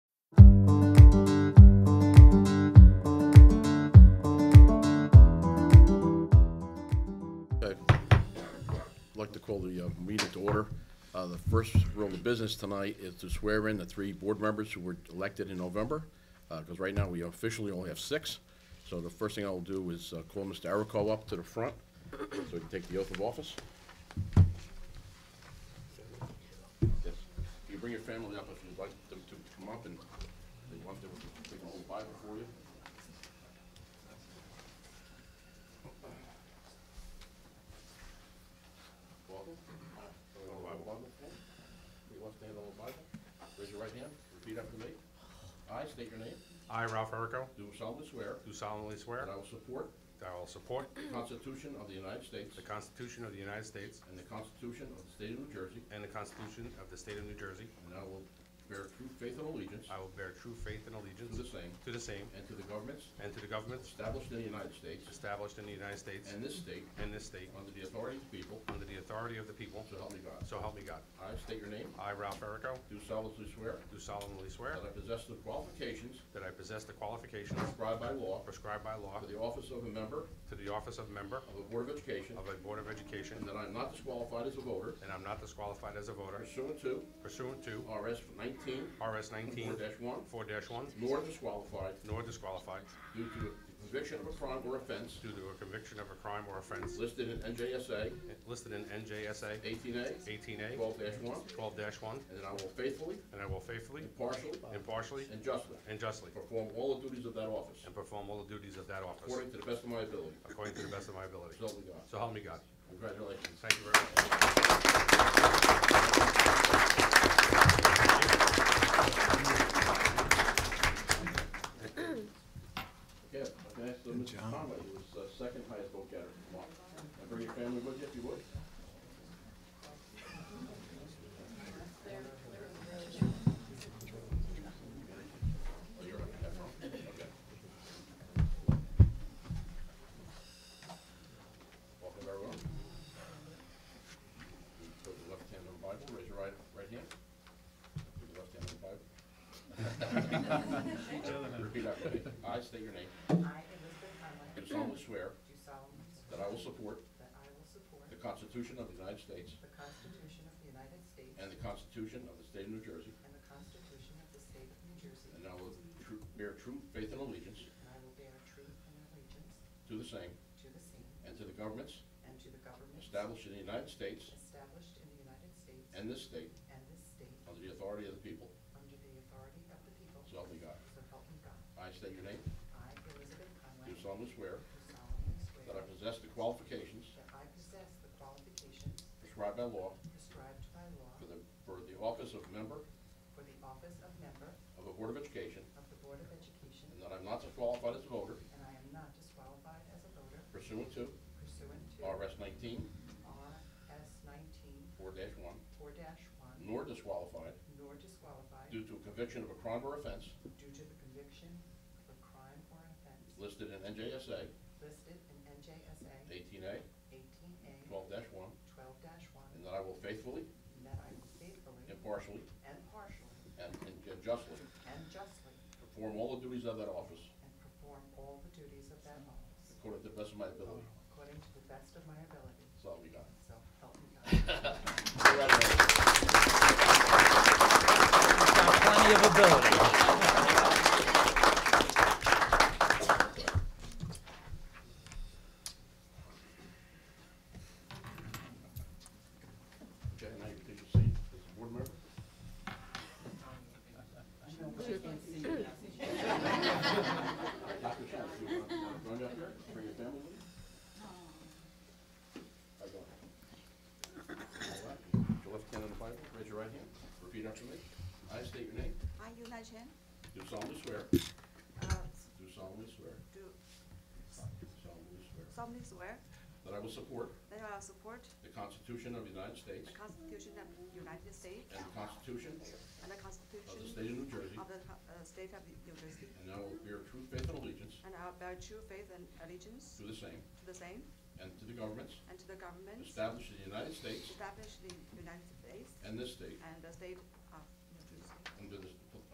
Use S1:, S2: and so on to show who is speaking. S1: call the uh, meeting to order. Uh, The first rule of business tonight is to swear in the three board members who were elected in November, because right now we officially only have six. So the first thing I'll do is uh, call Mr. Arico up to the front, so he can take the oath of office. Yes. If you bring your family up, if you'd like them to come up and they want to, we can hold Bible for you. Welcome. You want to stand on the Bible? Raise your right hand, repeat after me. I state your name,
S2: I, Ralph Errico,
S1: do solemnly swear
S2: do solemnly swear
S1: that I will support
S2: that I will support
S1: the Constitution of the United States
S2: the Constitution of the United States
S1: and the Constitution of the State of New Jersey,
S2: and the Constitution of the State of New Jersey.
S1: and I will bear true faith and allegiance
S2: I will bear true faith and
S1: to the
S2: allegiance
S1: same
S2: to the same
S1: and to the governments
S2: and to the governments
S1: established in the United States
S2: established in the United States
S1: and this state
S2: and this state
S1: under the authority of the people,
S2: under the authority of the people,
S1: so help me God.
S2: so help me God.
S1: I state your name,
S2: I, Ralph Errico,
S1: do solemnly swear
S2: do solemnly swear
S1: that I possess the qualifications
S2: that I possess the qualifications
S1: prescribed by law
S2: prescribed by law
S1: for the office of a member
S2: to the office of member
S1: of the Board of Education
S2: of a Board of Education,
S1: And that I am not disqualified as a voter
S2: and I'm not disqualified as a voter
S1: pursuant to
S2: pursuant to
S1: RS nineteen
S2: RS 19
S1: four one,
S2: 4-1,
S1: nor disqualified
S2: nor disqualified
S1: due to the conviction of a crime or offense
S2: due to a conviction of a crime or offense
S1: listed in NJSA
S2: listed in NJSA
S1: eighteen A
S2: 18A
S1: twelve one,
S2: 12-1,
S1: and that I will faithfully,
S2: and I will faithfully,
S1: impartially,
S2: impartially,
S1: and justly
S2: and justly
S1: perform all the duties of that office
S2: and perform all the duties of that office
S1: according to the best of my ability.
S2: according to the best of my ability.
S1: So help me God.
S2: So help me God.
S1: Congratulations.
S2: Thank you very much.
S1: Yeah, I asked uh, Mr. Conway, who was uh, second highest vote getter. Come on. And bring your family with you if you would. Oh, you're right, that's wrong. Okay. Welcome, everyone. Put the left hand on the Bible, raise your right, right hand. Put the left hand on the Bible. Repeat after me. I state your name.
S3: I, Elizabeth Conway,
S1: Do
S3: do
S1: solemnly swear
S3: solemnly swear
S1: that I will support
S3: that I will support
S1: the Constitution of the United States
S3: the Constitution of the United States
S1: and the Constitution of the State of New Jersey,
S3: and the Constitution of the State of New Jersey,
S1: and I will tru- bear true faith and allegiance
S3: and I will bear true and allegiance
S1: to the same
S3: to the same
S1: and to the governments
S3: and to the governments
S1: established in the United States
S3: established in the United States
S1: and this state
S3: and this state
S1: under the authority of the people,
S3: under the authority of the people,
S1: so help me God.
S3: so help me God.
S1: I state your name.
S3: I, Elizabeth
S1: Do
S3: Conway, do
S1: solemnly swear
S3: solemnly
S1: that I
S3: swear
S1: possess the qualifications
S3: that I possess the qualifications
S1: prescribed by law
S3: prescribed by law
S1: for the, for the office of member
S3: for the office of member
S1: of the Board of Education,
S3: of the Board of Education
S1: and that I'm not disqualified as a voter
S3: And I am not disqualified as a voter
S1: pursuant to
S3: pursuant to
S1: RS nineteen
S3: RS nineteen
S1: four dash one,
S3: four one,
S1: nor disqualified
S3: nor disqualified
S1: due to a conviction of a crime or offense
S3: due to the conviction of a crime or offense
S1: listed in NJSA
S3: listed in NJSA
S1: eighteen A
S3: eighteen A
S1: twelve one,
S3: twelve one,
S1: and that I will faithfully,
S3: and that I will faithfully
S1: impartially,
S3: and partially
S1: and and justly
S3: and justly
S1: perform all the duties of that office
S3: and perform all the duties of that office
S1: according to the best of my ability.
S3: according to the best of my ability,
S1: So help me God.
S3: so help me God.
S1: Congratulations.
S4: plenty of ability.
S1: Okay, now you can take your seat as a board member. Knock yourself. You want- you want to join up here? Bring your family with you? How you doing? All right. Put Your left hand on the Bible, raise your right hand, repeat after me. I state your name,
S5: I, Yuna Chen,
S1: do solemnly swear,
S5: uh,
S1: do solemnly swear,
S5: do
S1: solemnly swear,
S5: solemnly swear
S1: that I will support
S5: that I will support
S1: the Constitution of the United States
S5: the Constitution of the United States
S1: and the Constitution
S5: and the
S1: of the
S5: Constitution
S1: State of New Jersey,
S5: of the co- uh, State of New Jersey,
S1: and I will bear true faith and allegiance
S5: and I will bear true faith and allegiance
S1: to the same
S5: to the same
S1: and to the governments
S5: and to the governments
S1: established in the United States
S5: established in the United States
S1: and this state
S5: and the State of New Jersey,
S1: under the